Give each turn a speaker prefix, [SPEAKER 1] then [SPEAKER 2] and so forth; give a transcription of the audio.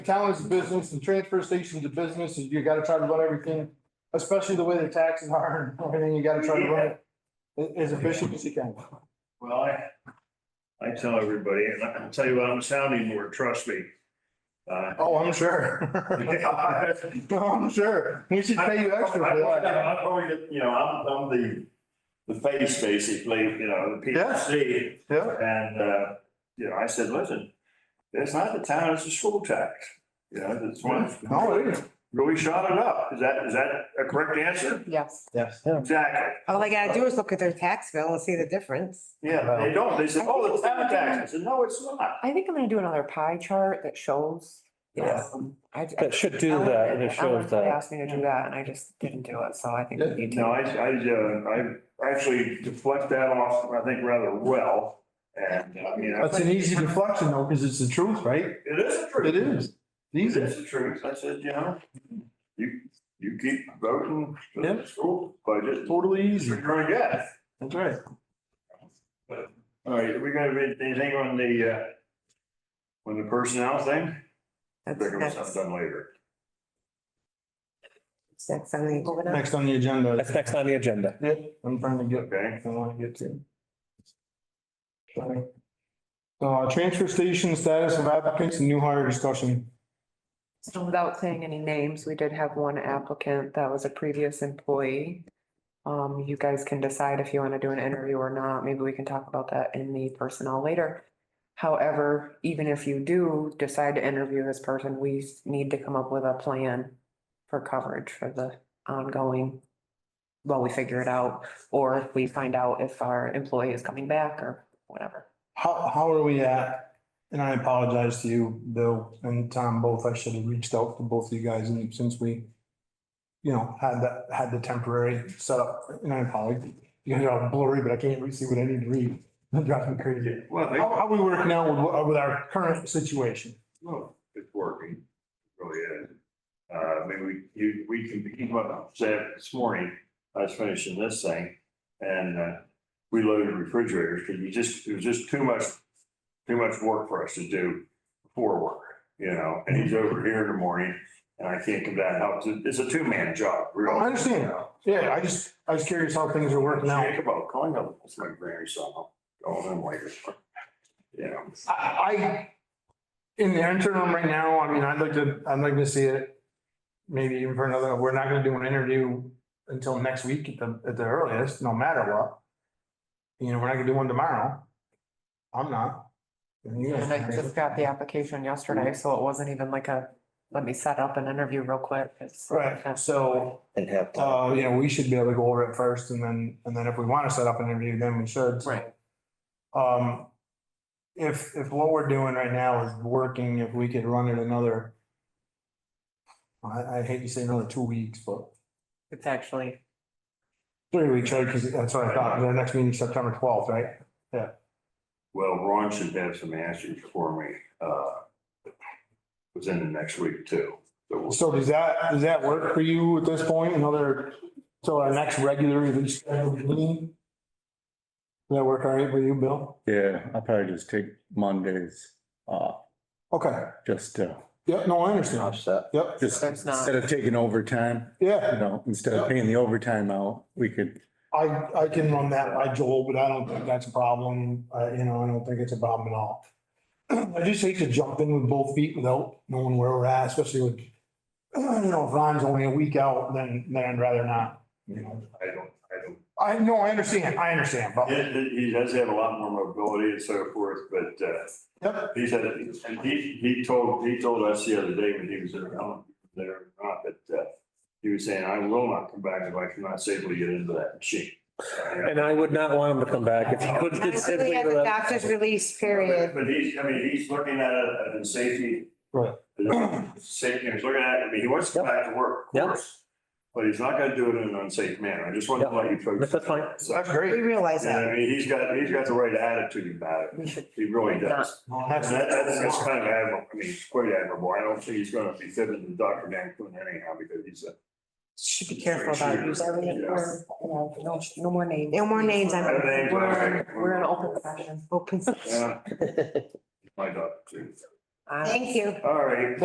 [SPEAKER 1] Town is business, the transfer station's a business, and you gotta try to run everything, especially the way the taxes are and everything, you gotta try to run it a- as efficient as you can.
[SPEAKER 2] Well, I, I tell everybody, and I'll tell you what, I'm sounding more, trust me. Uh,
[SPEAKER 1] Oh, I'm sure. No, I'm sure. We should pay you extra
[SPEAKER 2] I-
[SPEAKER 1] for
[SPEAKER 2] I-
[SPEAKER 1] that.
[SPEAKER 2] I probably get- You know, I'm, I'm the, the face basically, you know, the people
[SPEAKER 1] Yeah.
[SPEAKER 2] see.
[SPEAKER 1] Yeah,
[SPEAKER 2] And, uh, you know, I said, listen, it's not the town, it's the school tax. You know, it's one,
[SPEAKER 1] no, it is.
[SPEAKER 2] really shot it up. Is that, is that a correct answer?
[SPEAKER 3] Yes.
[SPEAKER 1] Yes.
[SPEAKER 2] Exactly.
[SPEAKER 3] All they gotta do is look at their tax bill and see the difference.
[SPEAKER 2] Yeah, they don't. They said, oh, the town tax. I said, no, it's not.
[SPEAKER 3] I think I'm gonna do another pie chart that shows.
[SPEAKER 2] Yeah.
[SPEAKER 3] Um, I-
[SPEAKER 4] That should do
[SPEAKER 3] Ellen-
[SPEAKER 4] that, and it
[SPEAKER 3] Ellen
[SPEAKER 4] shows that.
[SPEAKER 3] Asked me to do that and I just didn't do it, so I think
[SPEAKER 1] Yeah.
[SPEAKER 3] we need
[SPEAKER 2] No,
[SPEAKER 3] to.
[SPEAKER 2] I, I, uh, I actually deflect that off, I think, rather well. And, I mean, I-
[SPEAKER 1] That's an easy deflection though, because it's the truth, right?
[SPEAKER 2] it is the truth.
[SPEAKER 1] It is.
[SPEAKER 2] It
[SPEAKER 1] Easy.
[SPEAKER 2] is the truth. I said, you know, you, you keep voting for
[SPEAKER 1] Yeah.
[SPEAKER 2] the school budget,
[SPEAKER 1] Totally easy.
[SPEAKER 2] you're gonna get.
[SPEAKER 1] That's right.
[SPEAKER 2] All right, we gonna read anything on the, uh, on the personnel thing?
[SPEAKER 3] That's-
[SPEAKER 2] Bring them
[SPEAKER 3] That's
[SPEAKER 2] something later.
[SPEAKER 3] that's on the agenda.
[SPEAKER 1] Next on the agenda.
[SPEAKER 4] That's next on the agenda.
[SPEAKER 1] Yeah, I'm trying to get
[SPEAKER 2] Okay.
[SPEAKER 1] I want to get to. Sorry. Uh, transfer station status of applicants and new hire discussion.
[SPEAKER 3] So without saying any names, we did have one applicant that was a previous employee. Um, you guys can decide if you want to do an interview or not. Maybe we can talk about that in the personnel later. However, even if you do decide to interview this person, we s- need to come up with a plan for coverage for the ongoing. While we figure it out, or if we find out if our employee is coming back or whatever.
[SPEAKER 1] How, how are we at? And I apologize to you, Bill and Tom, both. I should have reached out to both of you guys and since we, you know, had that, had the temporary setup, and I apologize. You guys are all blurry, but I can't really see what I need to read. That drives me crazy.
[SPEAKER 2] Well,
[SPEAKER 1] How,
[SPEAKER 2] they-
[SPEAKER 1] how we working now with, with our current situation?
[SPEAKER 2] well, it's working, It really is. Uh, I mean, we, you, we can, keep what I said this morning, I was finishing this thing. And, uh, we loaded refrigerators, because you just, it was just too much, too much work for us to do before work, you know? And he's over here in the morning, and I can't come down and help, it's a two-man job, really.
[SPEAKER 1] I understand. Yeah, I just, I was curious how things are working out.
[SPEAKER 2] Think about calling up, it's my grandson, I'll call him later. Yeah,
[SPEAKER 1] I, I, in the interim right now, I mean, I'd like to, I'd like to see it. Maybe even for another, we're not gonna do an interview until next week at the, at the earliest, no matter what. You know, we're not gonna do one tomorrow. I'm not. And you guys-
[SPEAKER 3] And I just got the application yesterday, so it wasn't even like a, let me set up an interview real quick. It's-
[SPEAKER 1] Right, so,
[SPEAKER 4] And have.
[SPEAKER 1] uh, you know, we should be able to go over it first and then, and then if we wanna set up an interview, then we should.
[SPEAKER 3] Right.
[SPEAKER 1] Um, if, if what we're doing right now is working, if we could run it another. I, I hate to say another two weeks, but
[SPEAKER 3] It's actually,
[SPEAKER 1] three weeks, right? Cause that's what I thought. Our next meeting's September twelfth, right?
[SPEAKER 2] well, Ron should have some answers for me, uh, within the next week too. So we'll-
[SPEAKER 1] So does that, does that work for you at this point? Another, so our next regular scheduled meeting? Does that work all right with you, Bill?
[SPEAKER 5] Yeah, I'll probably just take Mondays off,
[SPEAKER 1] Okay.
[SPEAKER 5] just to,
[SPEAKER 1] Yep, no, I understand. Yep,
[SPEAKER 5] just
[SPEAKER 3] That's not-
[SPEAKER 5] instead of taking overtime, you
[SPEAKER 1] yeah,
[SPEAKER 5] know, instead of paying the overtime out, we could,
[SPEAKER 1] I, I can run that by Joel, but I don't think that's a problem. I, you know, I don't think it's a problem at all. I just hate to jump in with both feet without knowing where we're at, especially with, you know, if Ron's only a week out, then, then I'd rather not, you know.
[SPEAKER 2] I don't, I don't,
[SPEAKER 1] I, no, I understand, I understand, but,
[SPEAKER 2] he, he- he does have a lot more mobility and so forth, but, uh,
[SPEAKER 1] Yep.
[SPEAKER 2] he said, and he, he told, he told us the other day when he was in, I don't know if he was there or not, but, uh, he was saying, I will not come back if I cannot safely get into that machine. And
[SPEAKER 4] And I would not want him to come back if he could get
[SPEAKER 3] Honestly,
[SPEAKER 4] simply
[SPEAKER 3] as a doctor's release period,
[SPEAKER 2] But he's, I mean, he's looking at it as in safety.
[SPEAKER 1] Right.
[SPEAKER 2] Safety, he's looking at it, I mean, he wants to come back to work, of
[SPEAKER 4] Yep.
[SPEAKER 2] course. But he's not gonna do it in an unsafe manner. I just wanted to let you folks.
[SPEAKER 4] That's fine.
[SPEAKER 1] that's
[SPEAKER 3] we
[SPEAKER 1] great.
[SPEAKER 3] realize
[SPEAKER 2] Yeah,
[SPEAKER 3] that.
[SPEAKER 2] I mean, he's got, he's got the right attitude about
[SPEAKER 3] We should
[SPEAKER 2] it. He really
[SPEAKER 3] not
[SPEAKER 2] does.
[SPEAKER 1] Well,
[SPEAKER 2] And
[SPEAKER 1] That's,
[SPEAKER 2] that, that's, that's kind of admirable. I mean, it's quite admirable. I don't think he's gonna be fitting the Dr. Dan Quinn anyhow because he's a.
[SPEAKER 3] Should be careful about using everything. We're, you know, No, no more names. No more names.
[SPEAKER 2] No names.
[SPEAKER 3] We're, we're in open session. Open.
[SPEAKER 2] yeah, My doctor too.
[SPEAKER 3] Thank you.
[SPEAKER 2] All right.